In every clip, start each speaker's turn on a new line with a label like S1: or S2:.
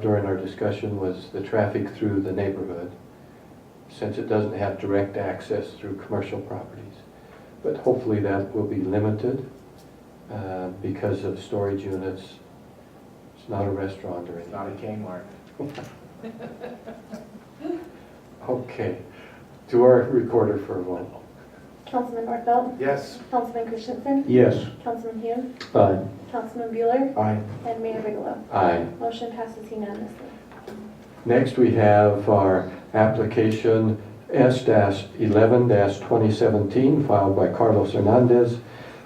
S1: during our discussion was the traffic through the neighborhood, since it doesn't have direct access through commercial properties. But hopefully that will be limited uh, because of storage units. It's not a restaurant or
S2: It's not a
S1: anything.
S2: Kmart.
S1: Okay, to our recorder for a moment.
S3: Councilman Nordfeld,
S2: Yes.
S3: Councilman Christensen,
S1: Yes.
S3: Councilman Hume,
S1: Aye.
S3: Councilman Bueller,
S1: Aye.
S3: and Mayor Bigelow.
S1: Aye.
S3: Motion passes unanimously.
S1: Next, we have our application S-11-2017 filed by Carlos Hernandez.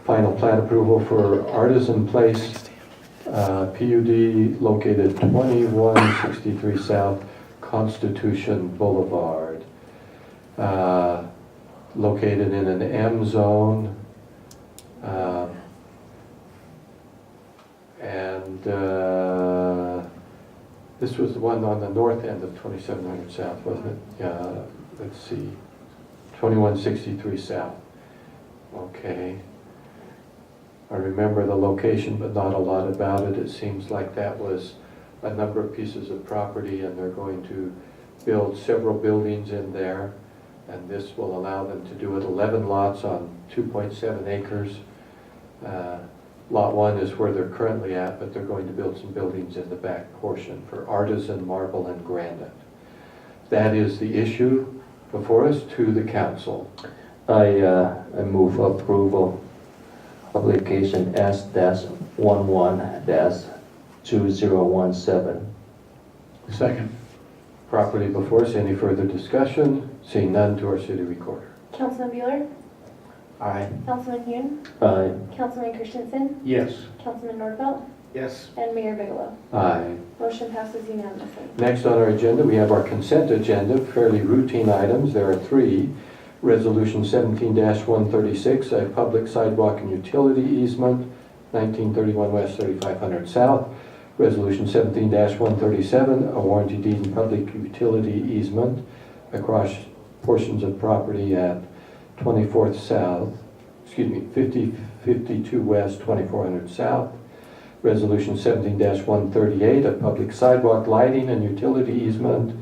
S1: Final plat approval for Artisan Place, uh, PUD located 2163 South Constitution Boulevard. uh, Located in an M zone. uh, And uh, this was the one on the north end of 2700 South, wasn't it? Yeah, let's see, 2163 South. Okay. I remember the location, but not a lot about it. It seems like that was a number of pieces of property, and they're going to build several buildings in there, and this will allow them to do it 11 lots on 2.7 acres. Uh, Lot one is where they're currently at, but they're going to build some buildings in the back portion for artisan marble and granite. That is the issue before us to the council.
S4: I, uh, I move approval, application S dash one one dash two zero one seven.
S1: Second. Property before us, any further discussion? Seeing none to our city recorder.
S3: Councilman Bueller,
S2: Aye.
S3: Councilman Hume,
S4: Aye.
S3: Councilman Christensen,
S1: Yes.
S3: Councilman Nordfeld,
S2: Yes.
S3: and Mayor Bigelow.
S1: Aye.
S3: Motion passes unanimously.
S1: Next on our agenda, we have our consent agenda, fairly routine items. There are three. Resolution 17-136, a public sidewalk and utility easement, 1931 West, 3500 South. Resolution 17-137, a warranty deed and public utility easement across portions of property at 24th South, excuse me, 5052 West, 2400 South. Resolution 17-138, a public sidewalk lighting and utility easement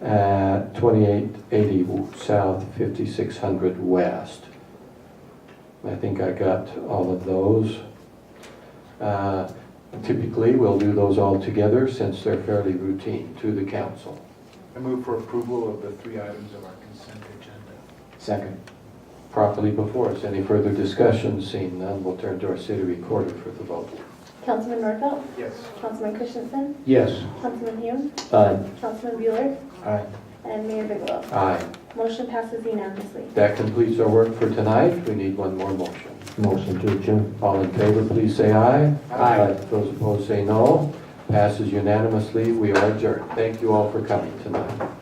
S1: at 2880 South, 5600 West. I think I got all of those. Uh, Typically, we'll do those all together since they're fairly routine to the council.
S2: I move for approval of the three items of our consent agenda.
S1: Second. Properly before us. Any further discussion? Seeing none, we'll turn to our city recorder for the vote.
S3: Councilman Nordfeld,
S2: Yes.
S3: Councilman Christensen,
S1: Yes.
S3: Councilman Hume,
S4: Aye.
S3: Councilman Bueller,
S2: Aye.
S3: and Mayor Bigelow.
S1: Aye.
S3: Motion passes unanimously.
S1: That completes our work for tonight. We need one more motion.
S4: Motion to adjourn.
S1: All in favor, please say aye.
S2: Aye.
S1: Those opposed, say no. Passes unanimously. We are adjourned. Thank you all for coming tonight.